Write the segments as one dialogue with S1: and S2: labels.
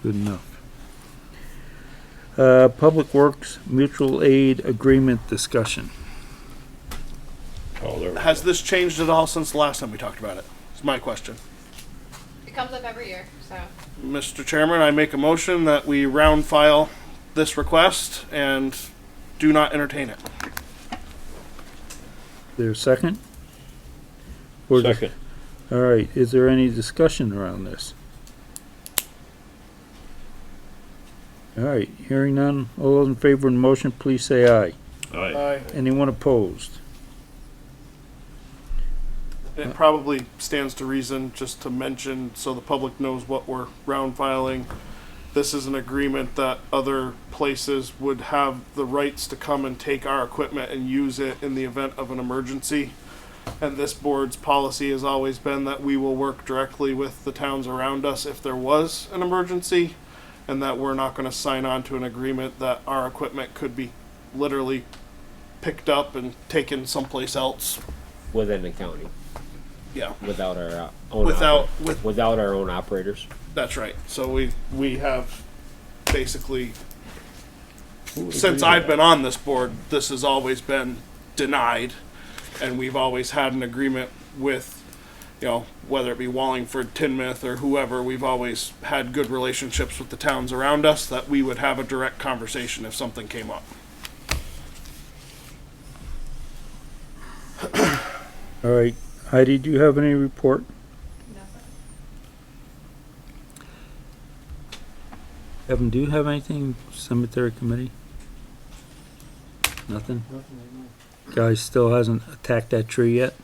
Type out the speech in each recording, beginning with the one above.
S1: Good enough. Uh, Public Works Mutual Aid Agreement Discussion.
S2: Oh, there.
S3: Has this changed at all since the last time we talked about it? It's my question.
S4: It comes up every year, so.
S3: Mr. Chairman, I make a motion that we round file this request and do not entertain it.
S1: There a second? Or dis-
S2: Second.
S1: All right, is there any discussion around this? All right, hearing none, all those in favor of the motion, please say aye.
S5: Uh,
S2: Aye.
S3: Aye.
S1: Anyone opposed?
S3: It probably stands to reason just to mention so the public knows what we're round filing. This is an agreement that other places would have the rights to come and take our equipment and use it in the event of an emergency. And this board's policy has always been that we will work directly with the towns around us if there was an emergency. And that we're not gonna sign on to an agreement that our equipment could be literally picked up and taken someplace else.
S5: within the county
S3: Yeah.
S5: without our uh, own
S3: Without-
S5: oper-
S3: with-
S5: without our own operators.
S3: That's right. So we we have basically since I've been on this board, this has always been denied, and we've always had an agreement with. You know, whether it be Wallingford, Tinmouth, or whoever, we've always had good relationships with the towns around us that we would have a direct conversation if something came up.
S1: All right, Heidi, do you have any report? Evan, do you have anything, cemetery committee? Nothing? Guy still hasn't attacked that tree yet?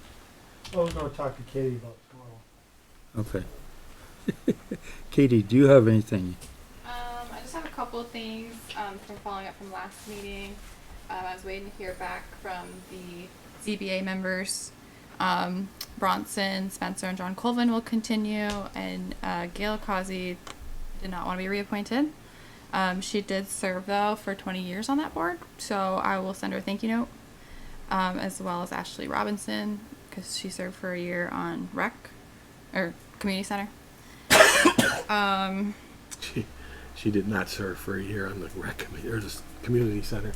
S6: I was gonna talk to Katie about tomorrow.
S1: Okay. Katie, do you have anything?
S4: Um, I just have a couple of things um, from following up from last meeting. Um, I was waiting to hear back from the ZBA members. Um, Bronson, Spencer, and John Colvin will continue, and uh, Gail Causey did not want to be reappointed. Um, she did serve though for 20 years on that board, so I will send her a thank you note, um, as well as Ashley Robinson because she served for a year on Rec or Community Center. um,
S7: She, she did not serve for a year on the rec committee or the s- community center.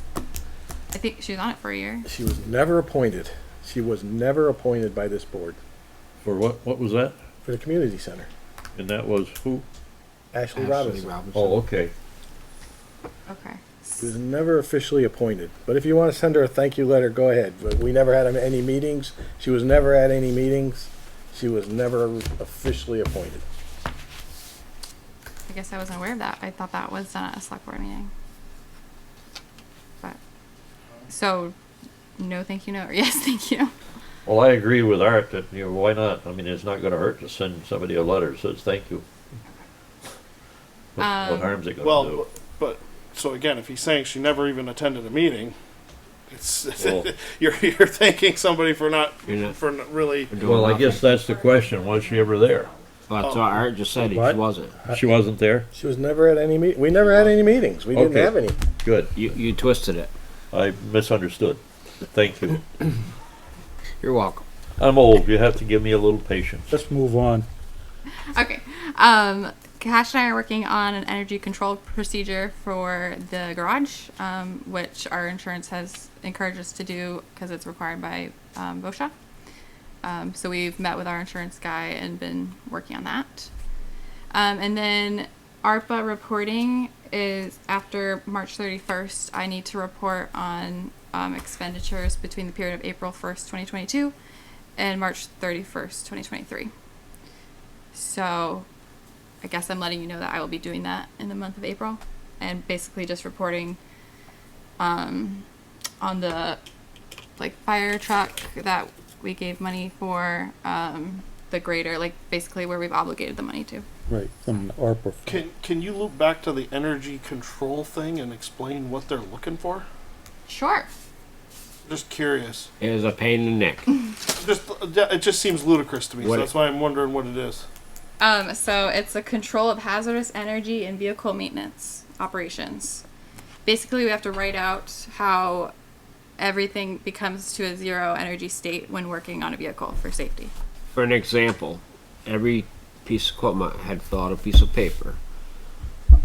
S4: I think she was on it for a year.
S7: She was never appointed. She was never appointed by this board
S2: For what, what was that?
S7: for the community center.
S2: And that was who?
S7: Ashley, Robinson.
S2: Oh, okay.
S4: Okay.
S7: She was never officially appointed. But if you want to send her a thank you letter, go ahead. But we never had any meetings. She was never at any meetings. She was never officially appointed.
S4: I guess I wasn't aware of that. I thought that was done at a select board meeting. But so, no, thank you, no, or yes, thank you.
S2: Well, I agree with Art that, you know, why not? I mean, it's not gonna hurt to send somebody a letter that says thank you. What what
S4: Um,
S2: harm's it gonna
S3: Well,
S2: do?
S3: but so again, if he's saying she never even attended a meeting, it's
S2: Well-
S3: you're you're thanking somebody for not
S5: You're not-
S3: for not really
S5: We're doing
S2: Well, I
S5: nothing.
S2: guess that's the question. Was she ever there?
S5: Well, that's what Art just said. He
S7: What?
S5: wasn't.
S2: She wasn't there?
S7: She was never at any meet. We never had any meetings. We didn't
S2: Okay.
S7: have any.
S2: Good.
S5: You you twisted it.
S2: I misunderstood. Thank you.
S5: You're welcome.
S2: I'm old. You have to give me a little patience.
S1: Let's move on.
S4: Okay. Um, Cash and I are working on an energy control procedure for the garage, um, which our insurance has encouraged us to do because it's required by um, VOSHA. Um, so we've met with our insurance guy and been working on that. Um, and then ARPA reporting is after March 31st. I need to report on um, expenditures between the period of April 1st, 2022 and March 31st, 2023. So I guess I'm letting you know that I will be doing that in the month of April and basically just reporting um, on the like fire truck that we gave money for um, the greater like basically where we've obligated the money to.
S1: Right, from the ARPA. fund.
S3: Can can you loop back to the energy control thing and explain what they're looking for?
S4: Sure.
S3: Just curious.
S5: It was a pain in the neck.
S3: Just it just seems ludicrous to me.
S5: What-
S3: so that's why I'm wondering what it is.
S4: Um, so it's a control of hazardous energy and vehicle maintenance operations. Basically, we have to write out how everything becomes to a zero energy state when working on a vehicle for safety.
S5: For an example, every piece of equipment had fill out a piece of paper